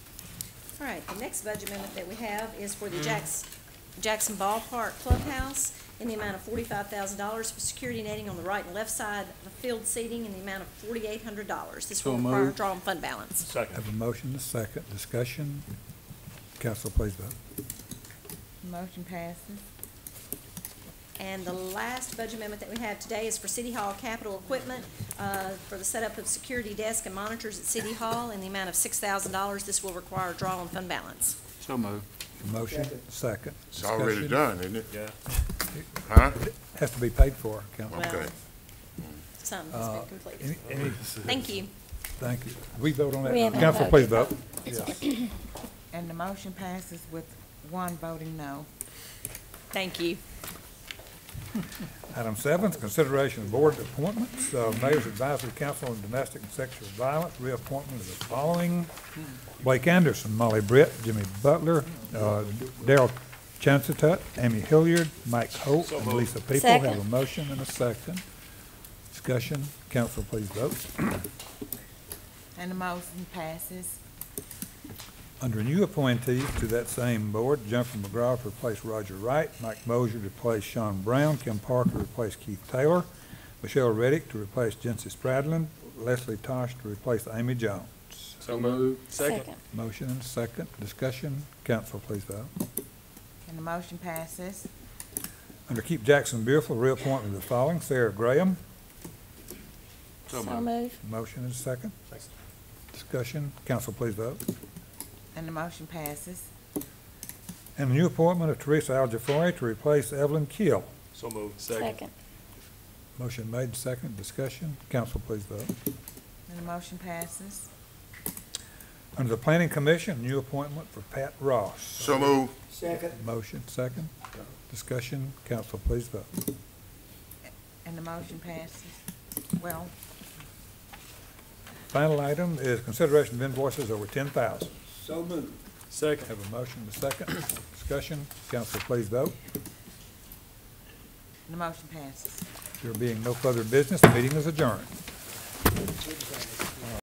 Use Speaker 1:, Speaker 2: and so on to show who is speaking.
Speaker 1: All right, the next budget amendment that we have is for
Speaker 2: Mm.
Speaker 1: the Jackson, Jackson Ballpark Clubhouse in the amount of forty-five thousand dollars for security netting on the right and left side of the field seating in the amount of forty-eight hundred dollars. This will
Speaker 2: So
Speaker 1: require a
Speaker 2: moved.
Speaker 1: draw on fund balance.
Speaker 3: Second.
Speaker 4: Have a motion, and a second, discussion. Council, please vote.
Speaker 5: Motion passes.
Speaker 1: And the last budget amendment that we have today is for City Hall capital equipment, uh, for the setup of security desk and monitors at City Hall in the amount of six thousand dollars. This will require a draw on fund balance.
Speaker 2: So moved.
Speaker 4: Motion, second.
Speaker 6: It's already
Speaker 4: discussion.
Speaker 6: done, isn't it?
Speaker 3: Yeah.
Speaker 6: Huh?
Speaker 4: Has to be paid for, Council.
Speaker 1: Well,
Speaker 6: Okay.
Speaker 1: Some has
Speaker 4: Uh,
Speaker 1: been completed.
Speaker 4: Any, any,
Speaker 1: Thank you.
Speaker 4: thank you. We vote on that?
Speaker 1: We
Speaker 4: now?
Speaker 1: haven't
Speaker 4: Council, please
Speaker 1: voted.
Speaker 4: vote. Yes.
Speaker 5: And the motion passes with one voting no.
Speaker 1: Thank you.
Speaker 4: Item seven is consideration of board appointments, Uh, Mayor's Advisory Council on Domestic and Sexual Violence, reappointment of the following. Blake Anderson, Molly Britt, Jimmy Butler, uh, Daryl Chancetut, Amy Hilliard, Mike Holt, and Lisa People. Have a
Speaker 1: Second.
Speaker 4: motion and a second. Discussion, council please vote.
Speaker 5: And the motion passes.
Speaker 4: Under new appointees to that same board, Jennifer McGraw to replace Roger Wright, Mike Mosier to replace Sean Brown, Kim Parker to replace Keith Taylor, Michelle Reddick to replace Jency Stradlin, Leslie Tosh to replace Amy Jones.
Speaker 2: So moved.
Speaker 7: Second.
Speaker 4: Motion and second, discussion, council please vote.
Speaker 5: And the motion passes.
Speaker 4: Under Keep Jackson Beautiful, reappointment of the following, Sarah Graham,
Speaker 7: So move.
Speaker 4: motion and second. Discussion, council please vote.
Speaker 5: And the motion passes.
Speaker 4: And the new appointment of Teresa Aljaforri to replace Evelyn Keel.
Speaker 3: So moved.
Speaker 7: Second.
Speaker 4: Motion made, second, discussion, council please vote.
Speaker 5: And the motion passes.
Speaker 4: Under the Planning Commission, new appointment for Pat Ross.
Speaker 6: So move.
Speaker 4: Motion, second. Discussion, council, please vote.
Speaker 5: And the motion passes. Well,
Speaker 4: Final item is consideration of invoices over ten thousand.
Speaker 2: Second.
Speaker 4: Have a motion, a second. Discussion, council, please vote.
Speaker 5: the motion passes.
Speaker 4: There being no further business, meeting is adjourned.